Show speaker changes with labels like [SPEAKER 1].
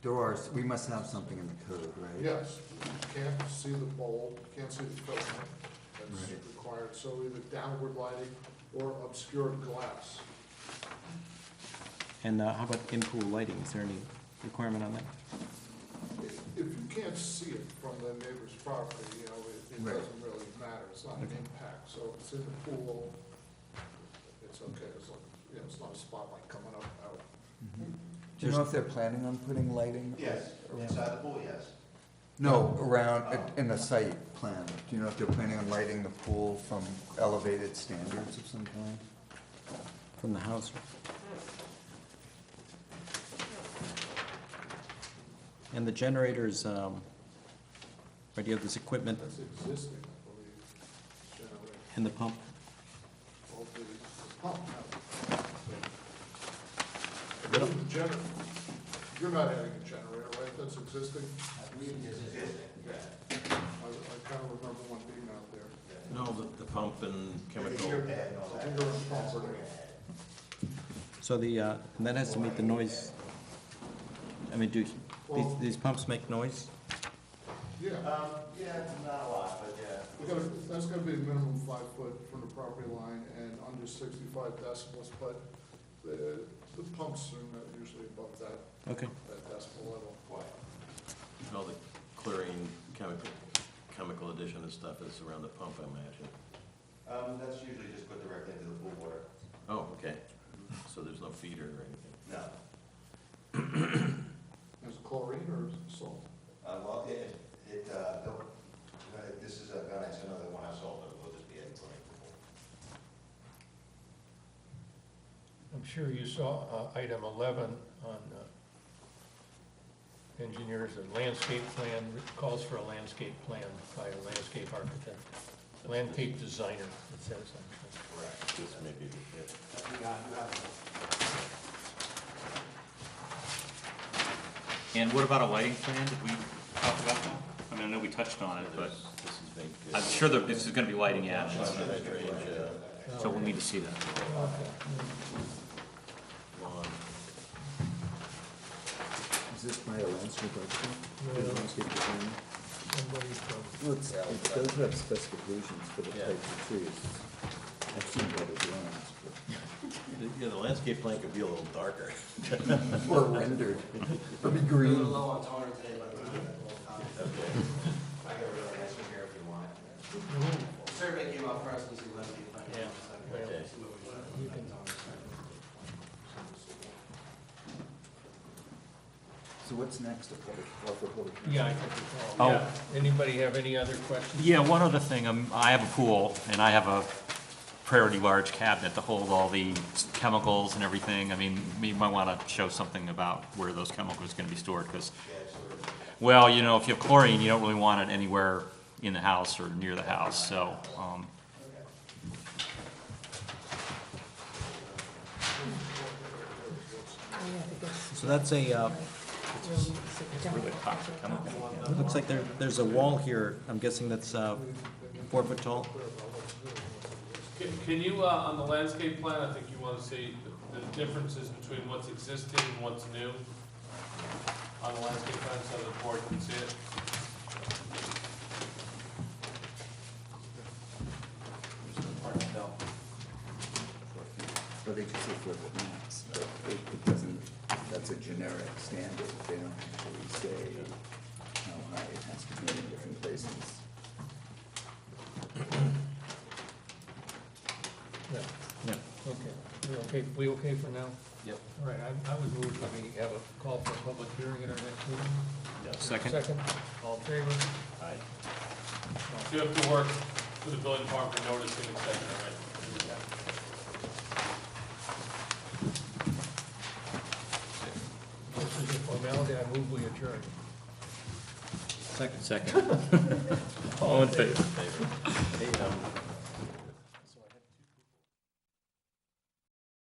[SPEAKER 1] There are, we must have something in the code, right?
[SPEAKER 2] Yes, you can't see the bulb, you can't see the filament, that's
[SPEAKER 1] Right.
[SPEAKER 2] required, so either downward lighting or obscured glass.
[SPEAKER 3] And uh, how about in-pool lighting? Is there any requirement on that?
[SPEAKER 2] If if you can't see it from the neighbor's property, you know, it, it
[SPEAKER 1] Right.
[SPEAKER 2] doesn't really matter, it's not an impact, so if it's in the pool, it's okay, it's like, you know, it's not a spotlight coming up out.
[SPEAKER 1] Do you know if they're planning on putting lighting?
[SPEAKER 4] Yes, inside the pool, yes.
[SPEAKER 1] No, around, uh, in the site plan. Do you know if they're planning on lighting the pool from elevated standards of some kind?
[SPEAKER 3] From the house? And the generators, um, right, you have this equipment
[SPEAKER 2] That's existing, I believe, generate
[SPEAKER 3] and the pump.
[SPEAKER 2] all the pump. now. The gener- You're not adding a generator, right, that's existing?
[SPEAKER 4] I believe it's existing. Yeah.
[SPEAKER 2] I, I kind of remember one being out there.
[SPEAKER 5] No, the, the pump and
[SPEAKER 4] The
[SPEAKER 5] chemical.
[SPEAKER 4] gear pad and all
[SPEAKER 2] The
[SPEAKER 4] that.
[SPEAKER 2] finger and
[SPEAKER 4] That's
[SPEAKER 2] pulse.
[SPEAKER 4] what we're at.
[SPEAKER 3] So the, uh, and that has to meet the noise. I mean, do, these, these pumps make noise?
[SPEAKER 2] Yeah,
[SPEAKER 4] Um, yeah, not a lot, but yeah.
[SPEAKER 2] we gotta, that's gotta be a minimum five foot from the property line and under sixty-five decibels, but the, the pumps are not usually above that,
[SPEAKER 3] Okay.
[SPEAKER 2] that decibel level.
[SPEAKER 5] and All the chlorine chemical, chemical addition and stuff is around the pump, I imagine.
[SPEAKER 4] Um, that's usually just put directly into the pool water.
[SPEAKER 5] Oh, okay. So there's no feeder or anything.
[SPEAKER 4] No,
[SPEAKER 2] Is it chlorine or is it salt?
[SPEAKER 4] uh, well, it, it, uh, no, uh, this is a, no, it's another one I sold, but we'll just be adding chlorine to the pool.
[SPEAKER 6] I'm sure you saw uh, item 11 on uh, engineers, and landscape plan, calls for a landscape plan by a landscape architect, landscape designer, it says. on
[SPEAKER 4] Correct.
[SPEAKER 5] Just maybe, yeah.
[SPEAKER 4] That's- you got- you got it.
[SPEAKER 7] And what about a lighting plan? Did we talk about that? I mean, I know we touched on it, but
[SPEAKER 5] There's- This is big.
[SPEAKER 7] I'm sure that this is gonna be lighting actions,
[SPEAKER 5] That range, uh,
[SPEAKER 7] so we'll need to see that.
[SPEAKER 5] lawn.
[SPEAKER 1] Is this by a landscape
[SPEAKER 6] No.
[SPEAKER 1] architect? A landscape designer?
[SPEAKER 6] there. Somebody from-
[SPEAKER 1] Well, it's, it does have specifications for the types of trees. I've seen better drawings,
[SPEAKER 5] The- Yeah, the landscape plan could be a little darker.
[SPEAKER 1] but- or rendered, it'll be green.
[SPEAKER 4] A little low on toner today, but we'll have that little topic. I got a really nice one here if you want. Survey came out first, and see what we find.
[SPEAKER 6] Yeah.
[SPEAKER 4] Okay. See what we want.
[SPEAKER 1] So what's next, a public, a public?
[SPEAKER 6] Yeah, I think it's
[SPEAKER 7] Oh.
[SPEAKER 6] all, yeah. Anybody have any other questions?
[SPEAKER 7] Yeah, one other thing, um, I have a pool and I have a priority large cabinet to hold all the chemicals and everything. I mean, you might wanna show something about where those chemicals are gonna be stored, cause, well, you know, if you have chlorine, you don't really want it anywhere in the house or near the house, so, um,
[SPEAKER 3] So that's a, uh,
[SPEAKER 7] really toxic chemical.
[SPEAKER 3] it looks like there, there's a wall here. I'm guessing that's, uh, four foot tall.
[SPEAKER 8] Can, can you, uh, on the landscape plan, I think you wanna see the, the differences between what's existing and what's new on the landscape plan, so the board can see it.
[SPEAKER 1] But they just say flip it max, but it, it doesn't, that's a generic standard, they don't actually say how high it has to be in different places.
[SPEAKER 6] No,
[SPEAKER 3] Yeah.
[SPEAKER 6] okay. We're okay, we okay for now?
[SPEAKER 5] Yep.
[SPEAKER 6] All right, I I would move that we have a call for a public hearing at our next meeting.
[SPEAKER 7] Second,
[SPEAKER 6] Second, all in favor?
[SPEAKER 8] You have to work with the building department for notice and extension, right?
[SPEAKER 6] This is a formality, I move we adjourn.
[SPEAKER 3] Second.
[SPEAKER 7] second. All in favor?
[SPEAKER 5] Hey, um,